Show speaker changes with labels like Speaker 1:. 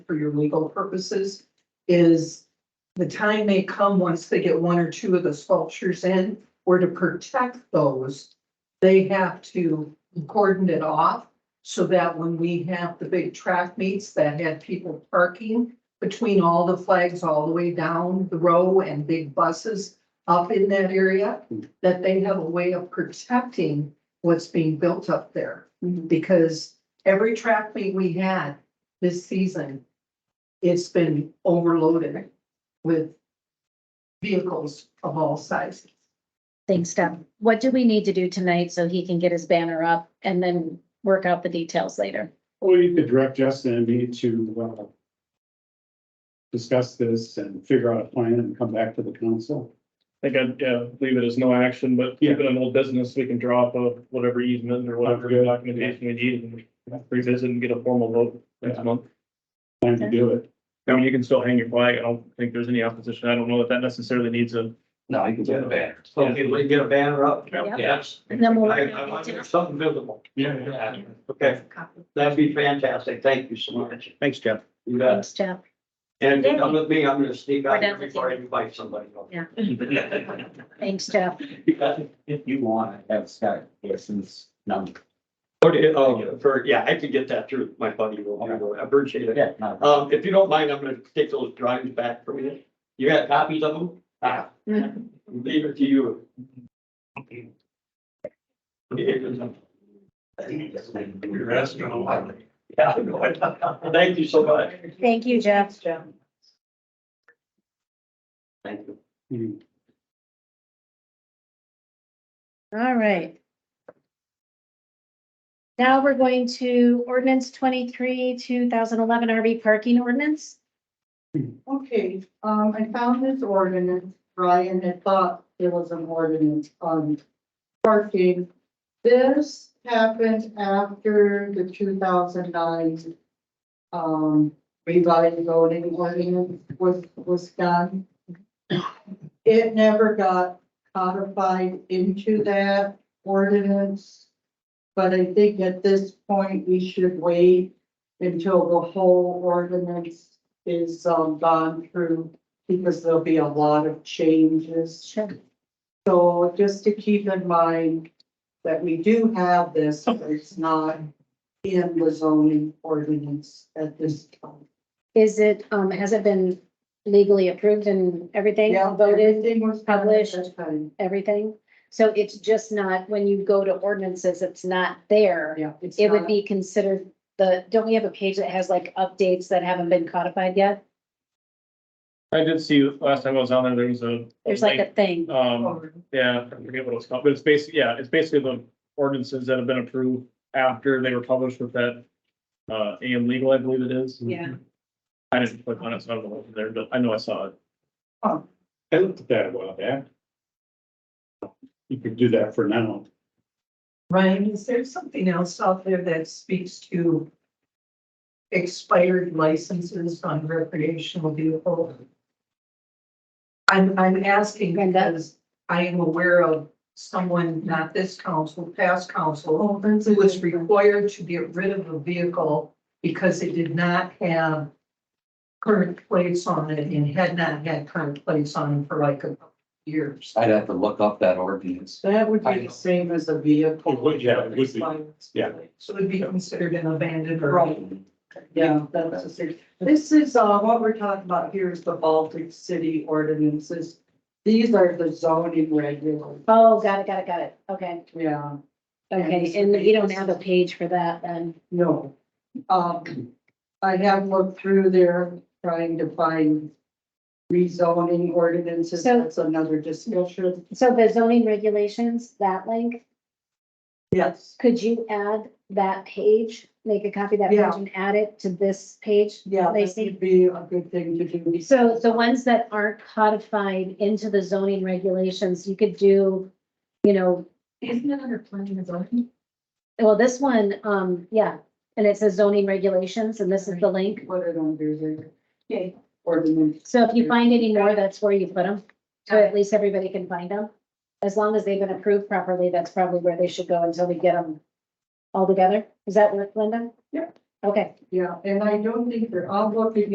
Speaker 1: for your legal purposes is the time may come, once they get one or two of the sculptures in, or to protect those, they have to cordon it off so that when we have the big track meets that had people parking between all the flags all the way down the row and big buses up in that area, that they have a way of protecting what's being built up there.
Speaker 2: Mhm.
Speaker 1: Because every track meet we had this season, it's been overloaded with vehicles of all sizes.
Speaker 2: Thanks, Deb. What do we need to do tonight so he can get his banner up and then work out the details later?
Speaker 3: Or you could direct Justin and me to, uh, discuss this and figure out a plan and come back to the council.
Speaker 4: I think I'd, yeah, leave it as no action, but keep it an old business, we can draw up a whatever easement or whatever
Speaker 3: Sounds good.
Speaker 4: documentation we need and revisit and get a formal vote next
Speaker 3: Yeah.
Speaker 4: month.
Speaker 3: Plan to do it.
Speaker 4: I mean, you can still hang your flag, I don't think there's any opposition, I don't know if that necessarily needs a.
Speaker 5: No, you can get a banner.
Speaker 6: So if we get a banner up,
Speaker 2: Yep.
Speaker 6: yes.
Speaker 2: And then we'll
Speaker 6: I-
Speaker 2: work
Speaker 6: I
Speaker 2: out
Speaker 6: want
Speaker 2: the details.
Speaker 6: Something visible.
Speaker 3: Yeah.
Speaker 6: Okay, that'd be fantastic. Thank you so much.
Speaker 4: Thanks, Jeff.
Speaker 6: You bet.
Speaker 2: Thanks, Jeff.
Speaker 6: And if you come with me, I'm gonna sneak
Speaker 2: We're
Speaker 6: out
Speaker 2: done
Speaker 6: here
Speaker 2: with
Speaker 6: before I
Speaker 2: you.
Speaker 6: invite somebody. else.
Speaker 2: Yeah. Thanks, Jeff.
Speaker 6: You got it.
Speaker 5: If you want, I have Scott Garrison's number.
Speaker 6: Okay, oh, for, yeah, I could get that through my buddy. will
Speaker 5: Okay.
Speaker 6: handle it. I appreciate it.
Speaker 5: Yeah, no,
Speaker 6: Um, if you don't mind, I'm gonna take those drawings back for you. You got copies of them? Ah, leave it to you. You're asking a lot. Yeah, I know. Thank you so much.
Speaker 2: Thank you, Jeff. Jeff.
Speaker 6: Thank you.
Speaker 3: Hmm.
Speaker 2: All right. Now we're going to ordinance twenty-three, two thousand eleven RV parking ordinance.
Speaker 7: Okay, um, I found this ordinance, Brian had thought there was an ordinance on parking. This happened after the two thousand nine um, revised voting ordinance was, was done. It never got codified into that ordinance. But I think at this point, we should wait until the whole ordinance is um gone through because there'll be a lot of changes.
Speaker 2: Sure.
Speaker 7: So just to keep in mind that we do have this, but it's not in the zoning ordinance at this time.
Speaker 2: Is it, um, has it been legally approved and everything
Speaker 7: Yeah,
Speaker 2: voted,
Speaker 7: everything was done at
Speaker 2: published.
Speaker 7: that time.
Speaker 2: everything? So it's just not, when you go to ordinances, it's not there.
Speaker 7: Yeah. it's
Speaker 2: It would
Speaker 7: not-
Speaker 2: be considered the, don't we have a page that has like updates that haven't been codified yet?
Speaker 4: I did see, last time I was on there, there was a.
Speaker 2: There's like a thing.
Speaker 4: Um, yeah, I forget what it's called, but it's basically, yeah, it's basically the ordinances that have been approved after they were published with that. Uh, AM legal, I believe it is.
Speaker 2: Yeah.
Speaker 4: I didn't click on it, so I don't know what's there, but I know I saw it.
Speaker 3: I looked at that a while back. You could do that for now.
Speaker 1: Ryan, is there something else out there that speaks to expired licenses on recreational vehicles? I'm, I'm asking
Speaker 2: Brenda?
Speaker 1: because I am aware of someone, not this council, past council,
Speaker 7: Oh, that's a
Speaker 1: who was
Speaker 7: good one.
Speaker 1: required to get rid of a vehicle because it did not have current plates on it and had not had current plates on it for like a couple of years.
Speaker 5: I'd have to look up that ordinance.
Speaker 7: That would be the same as a vehicle.
Speaker 3: It would, yeah, it would be, yeah.
Speaker 1: So it'd be considered an abandoned or.
Speaker 7: Right. Yeah, that's the same. This is, uh, what we're talking about here is the Baltic City ordinances. These are the zoning regulations,
Speaker 2: Oh, got it, got it, got it. Okay,
Speaker 7: yeah,
Speaker 2: okay. And you don't have a page for that then?
Speaker 7: no. Um, I have looked through there trying to find rezoning ordinances,
Speaker 2: So-
Speaker 7: that's another discussion.
Speaker 2: So the zoning regulations, that link,
Speaker 7: Yes,
Speaker 2: could you add that page? Make a copy of that
Speaker 7: Yeah.
Speaker 2: page and add it to this page?
Speaker 7: yeah, this
Speaker 2: Lacey?
Speaker 7: would be a good thing to do.
Speaker 2: So the ones that aren't codified into the zoning regulations, you could do, you know,
Speaker 1: Isn't it under planning and zoning?
Speaker 2: well, this one, um, yeah. And it says zoning regulations and this is the link.
Speaker 7: Put it under there.
Speaker 1: Okay.
Speaker 7: Ordinance.
Speaker 2: So if you find any more, that's where you put them. So at least everybody can find them. As long as they've been approved properly, that's probably where they should go until we get them all together. Does that work, Linda?
Speaker 1: Yep.
Speaker 2: Okay.
Speaker 7: yeah, and I don't think they're obligated